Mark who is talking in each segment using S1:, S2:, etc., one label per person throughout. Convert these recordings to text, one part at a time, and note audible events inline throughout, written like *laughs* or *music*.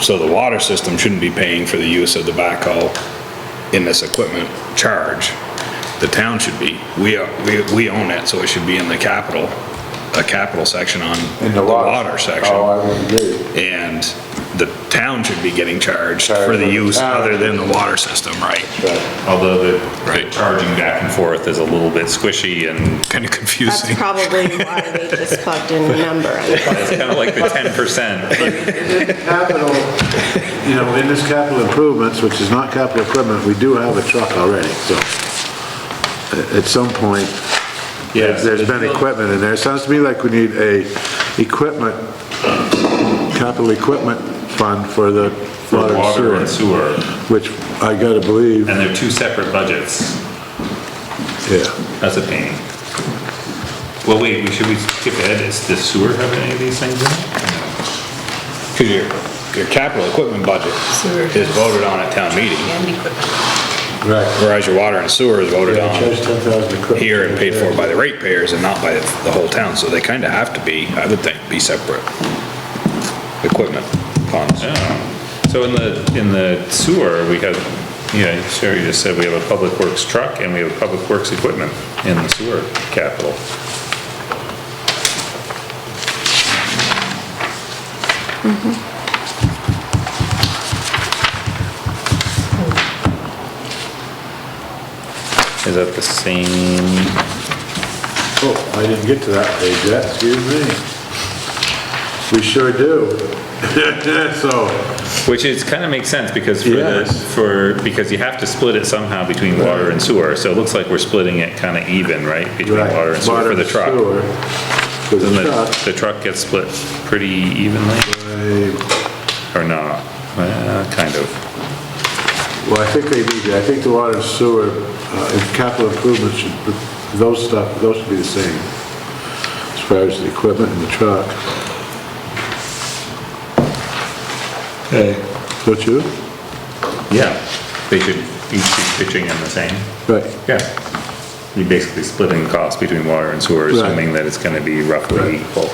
S1: So the water system shouldn't be paying for the use of the backhoe in this equipment charge. The town should be. We are, we, we own it, so it should be in the capital, a capital section on
S2: In
S1: the
S2: water-
S1: water section.
S2: Oh, I would agree.
S1: And the town should be getting charged
S2: Charged
S1: for the
S2: for the
S1: use
S2: town.
S1: other than the water system, right?
S3: Although the
S1: Right.
S3: charging back and forth is a little bit squishy and
S1: Kind of
S4: That's
S1: confusing.
S4: probably why they just plugged in the number. in.
S3: it's kind of like the 10%.
S2: Capital, you know, in this capital improvements, which is not capital equipment, we do have a truck already, so a- at some point,
S3: Yeah.
S2: there's been equipment in there. It sounds to me like we need a equipment, capital equipment fund for the water and
S3: Water and
S2: sewer,
S3: sewer,
S2: which I gotta believe,
S3: and they're two separate budgets.
S2: yeah.
S3: That's a pain. Well, wait, we- should we skip ahead? Is the sewer have any of these things in it?
S1: Because your, your capital equipment budget is voted on at town meeting,
S2: Right.
S1: whereas your water and sewer is voted
S2: Yeah,
S1: on
S2: charge 10,000 equipment.
S1: here and paid for by the ratepayers and not by the whole town, so they kind of have to be, I would think, be separate equipment funds.
S3: Oh. So in the, in the sewer, we have, yeah, Sherry just said we have a public works truck and we have public works equipment in the sewer capital. Is that the same?
S2: Oh, I didn't get to that page yet, excuse me. We sure do. *laughs* So,
S3: Which is, kind of makes sense because for the,
S2: Yes.
S3: for, because you have to split it somehow between water and sewer. So it looks like we're splitting it kind of even, right? Between
S2: right.
S3: water and sewer for the truck.
S2: sewer. For
S3: Doesn't
S2: the
S3: the,
S2: truck,
S3: the truck gets split pretty evenly
S2: I-
S3: or not? Well, kind of.
S2: well, I think they need, to- I think the water and sewer, uh, and capital improvements, should- those stuff, those should be the same. As far as the equipment and the truck.
S3: Okay.
S2: Don't you?
S3: Yeah, they should each be pitching in the same.
S2: Right.
S3: Yeah. You're basically splitting the cost between water and sewer,
S2: Right.
S3: assuming that it's gonna be roughly equal.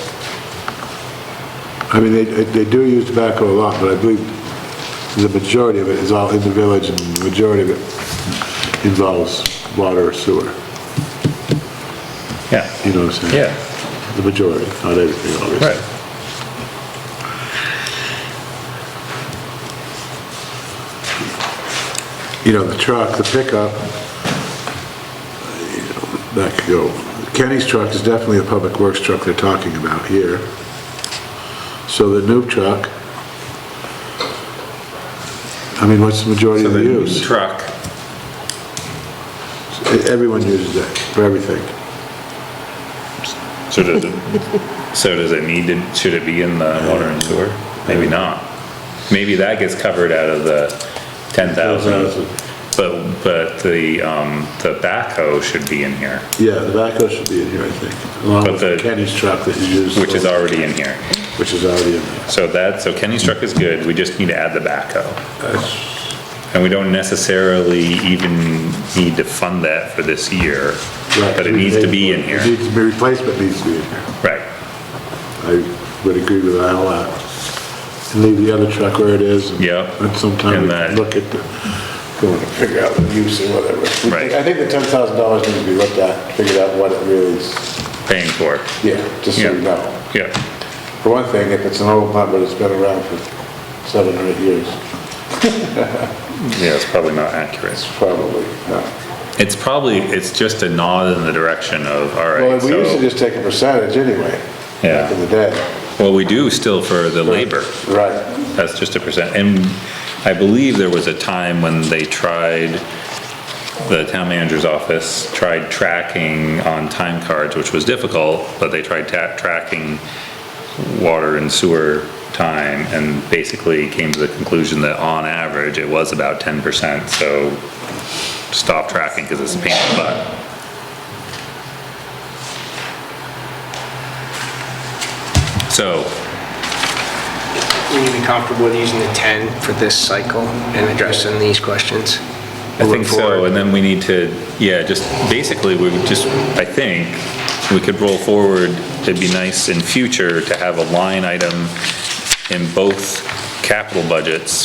S2: I mean, they, they do use tobacco a lot, but I believe the majority of it is all in the village, and the majority of it involves water or sewer,
S3: Yeah,
S2: you know what I'm saying?
S3: yeah,
S2: The majority, not everything, obviously.
S3: right.
S2: You know, the truck, the pickup, you know, that could go, Kenny's truck is definitely the public works truck they're talking about here. So the new truck, I mean, what's the majority
S3: So
S2: of the
S3: the
S2: use? E,
S3: Truck.
S2: Everyone uses that for everything.
S3: So does it, so does it need to, should it be in the water and sewer? Maybe not. Maybe that gets covered out of the ten thousand.
S2: 10,000.
S3: But, but the, um, the backhoe should be in here,
S2: Yeah, the backhoe should be in here, I think, along
S3: But
S2: with
S3: the-
S2: Kenny's truck that you used.
S3: which is already in here.
S2: Which is already in there.
S3: So that, so Kenny's truck is good, we just need to add the backhoe.
S2: That's-
S3: And we don't necessarily even need to fund that for this year,
S2: right,
S3: but it
S2: we
S3: needs to
S2: paid
S3: be
S2: for it.
S3: in
S2: It
S3: here.
S2: needs to be, replacement needs to be in here.
S3: Right,
S2: I would agree with that a lot. And leave the other truck where it is. and-
S3: Yep.
S2: And
S3: And
S2: sometime
S3: that-
S2: we look at the, go and figure out the use or whatever. We think-
S3: Right.
S2: I think the ten thousand dollars needs to be looked at, figured out what it really is,
S3: paying for it.
S2: yeah, just so
S3: Yeah.
S2: you know.
S3: Yeah,
S2: For one thing, if it's an old pump, but it's been around for seven or eight years,
S3: yeah, it's probably not accurate.
S2: it's probably, not.
S3: It's probably, it's just a nod in the direction of, all
S2: Well,
S3: right,
S2: we used to
S3: so,
S2: just take a percentage anyway.
S3: Yeah.
S2: Back in the day.
S3: well, we do still for the labor,
S2: Right.
S3: that's just a percent, and I believe there was a time when they tried, the town manager's office tried tracking on time cards, which was difficult, but they tried ta- tracking water and sewer time, and basically came to the conclusion that on average, it was about ten percent, so stop tracking, cause it's a pain in the butt. So,
S5: Will you be comfortable with using the 10 for this cycle and addressing these questions?
S3: I think so,
S5: Forward.
S3: and then we need to, yeah, just, basically, we would just, I think, we could roll forward, it'd be nice in future to have a line item in both capital budgets